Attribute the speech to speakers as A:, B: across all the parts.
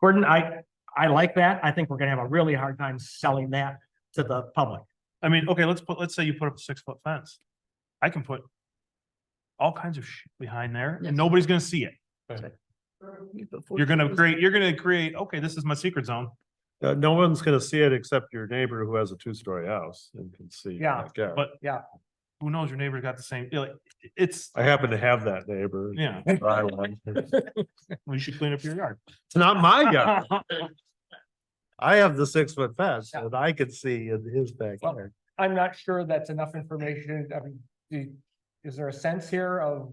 A: Gordon, I, I like that. I think we're gonna have a really hard time selling that to the public.
B: I mean, okay, let's put, let's say you put up a six foot fence. I can put. All kinds of shit behind there
C: Yes.
B: and nobody's gonna see it. You're
C: You're
B: gonna create, you're gonna create, okay, this is my secret zone.
D: Uh, no one's gonna see it except your neighbor who has a two-story house and can see. your
A: Yeah,
D: backyard.
B: but- Who knows? Your neighbor got the same, like, it's,
D: I happen to have that neighbor.
B: yeah,
D: Buy one. It's
B: we should clean up your yard.
D: not my yard. I have the six-foot fence and I could see in his backyard.
A: I'm not sure that's enough information. I mean, do, is there a sense here of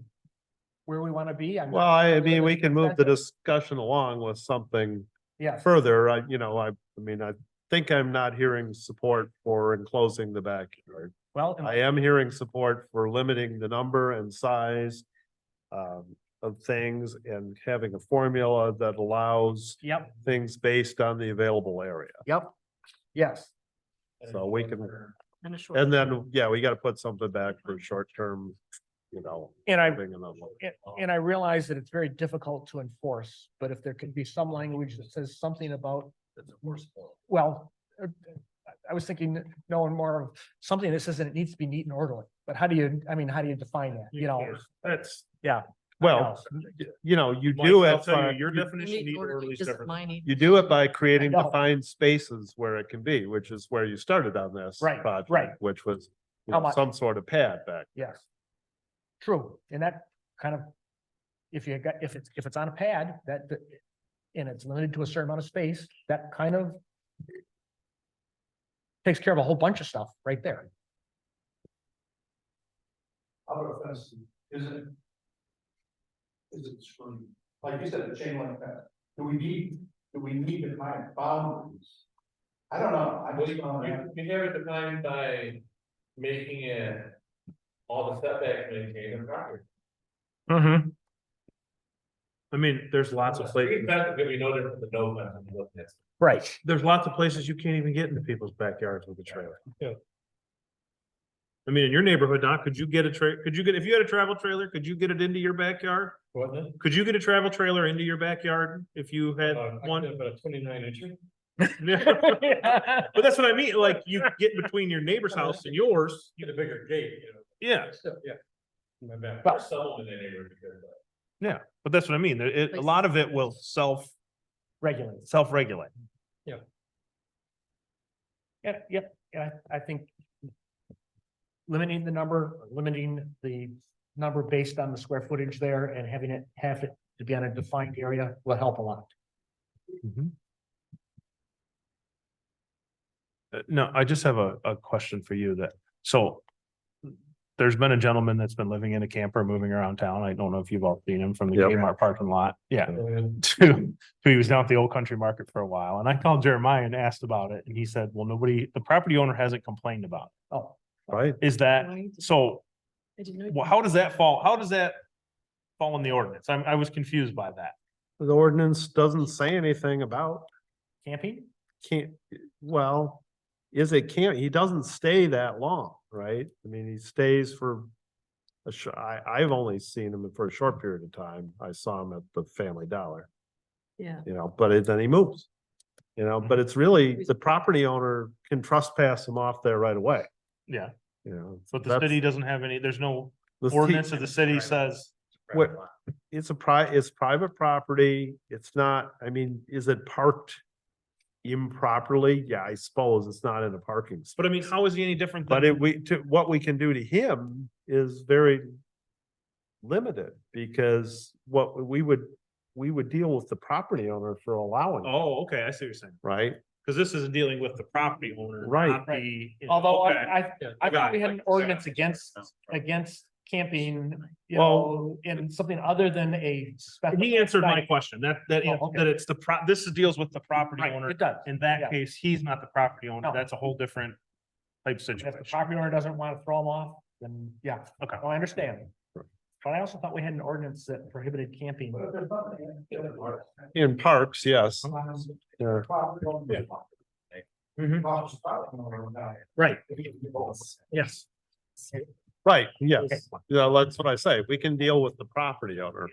A: where we want to be? I'm-
D: Well, I mean, we can move the discussion along with something
A: Yes,
D: further. I, you know, I, I mean, I think I'm not hearing support for enclosing the backyard.
A: well,
D: I am hearing support for limiting the number and size um, of things and having a formula that allows
A: yep,
D: things based on the available area.
A: yep, yes.
D: So we can, and then, yeah, we gotta put something back for short-term, you know.
A: And I,
D: having another one.
A: and I realize that it's very difficult to enforce, but if there could be some language that says something about. Well, uh, I was thinking, no, and more of something that says that it needs to be neat and orderly, but how do you, I mean, how do you define that, you know?
B: That's.
D: Well, you know, you
B: Mike,
D: do
B: I'll
D: it,
B: tell you,
D: by-
B: Your
D: you-
B: definition of neat and orderly is different.
D: you do it by creating
A: know.
D: defined spaces where it can be, which is where you started on this.
A: Right,
D: project,
A: right.
D: Which was you
A: How
D: know,
A: much?
D: some sort of pad back.
A: Yes. True, and that kind of, if you got, if it's, if it's on a pad, that, that- and it's limited to a certain amount of space, that kind of takes care of a whole bunch of stuff right there.
E: How about a fence, is it? Is it screened, like you said, the chain link fence, do we need, do we need to define boundaries? I don't know, I just don't
F: You
E: know.
F: you have it defined by making it all the setbacks maintained and property.
B: I mean, there's lots of
F: Street
B: places,
F: fence is gonna be no different than no fence. when you look at it.
A: Right.
B: there's lots of places you can't even get into people's backyards with a trailer.
F: Yeah.
B: I mean, in your neighborhood, Doc, could you get a tra, could you get, if you had a travel trailer, could you get it into your backyard?
F: Wasn't it?
B: Could you get a travel trailer into your backyard if you had
F: Uh, I
B: one?
F: could've put a twenty-nine inch.
B: But that's what I mean, like you get between your neighbor's house and yours,
F: Get a bigger gate, you know.
B: yeah,
F: So, yeah. My bad.
A: Well-
F: There's someone in that neighborhood because of
B: but that's what I mean, there- it, a lot of it will self,
A: Regulated.
B: self-regulate.
A: Yeah, yep, yeah, I I think limiting the number, limiting the number based on the square footage there and having it, have it to be on a defined area will help a lot.
B: Uh, no, I just have a, a question for you that, so. There's been a gentleman that's been living in a camper, moving around town. I don't know if you've all seen him from the
D: Yep.
B: Kmart parking lot. Yeah.
F: that.
B: To, he was down at the old country market for a while and I called Jeremiah and asked about it and he said, well, nobody, the property owner hasn't complained about.
A: Oh,
D: Right.
B: it." Is that, so Well, how does that fall? How does that fall in the ordinance? I'm, I was confused by that.
D: The ordinance doesn't say anything about
A: camping?
D: can't, well, is it can't, he doesn't stay that long, right? I mean, he stays for a sh- I, I've only seen him for a short period of time. I saw him at the Family Dollar,
C: Yeah.
D: you know, but it- then he moves. You know, but it's
B: Mm-hmm.
D: really, the property owner can trespass him off there right away,
B: Yeah,
D: you know.
B: but the
D: that's-
B: city doesn't have any, there's no
D: the ci-
B: ordinance of the city says,
D: What, it's a pri, it's private property. It's not, I mean, is it parked improperly? Yeah, I suppose it's not in a parking spot.
B: but I mean, how is he any different?
D: But
B: than-
D: it, we, to, what we can do to him is very limited because what we would, we would deal with the property owner for allowing, it,
B: Oh, okay, I see what you're saying.
D: right?
B: Cause this is dealing with the property owner.
D: Right.
B: not the-
A: Although
B: Okay.
A: I, I I thought
B: Got
A: we
B: it.
A: had an ordinance against, against camping, you know,
D: Well-
A: in something other than a. spec-
B: He answered my
A: Right.
B: question, that, that,
A: Oh, okay.
B: that it's the pro, this is- deals with the property
A: Right,
B: owner.
A: it does.
B: In
A: Yeah.
B: that case, he's not the property owner.
A: No.
B: That's a whole different type
A: And If the
B: situation.
A: property owner doesn't want to throw them off, then yeah,
B: Okay.
A: no, I understand.
D: Right.
A: But I also thought we had an ordinance that prohibited camping.
E: But if there's nothing in it, it doesn't work.
D: In parks, yes.
E: Sometimes it's
D: Yeah.
E: probably gonna be a lot.
A: Mhm.
E: Probably just probably gonna run out.
A: Right,
E: If you can do both.
A: yes.
D: Right, yes. Yeah, that's what I say. We can deal with the property owner.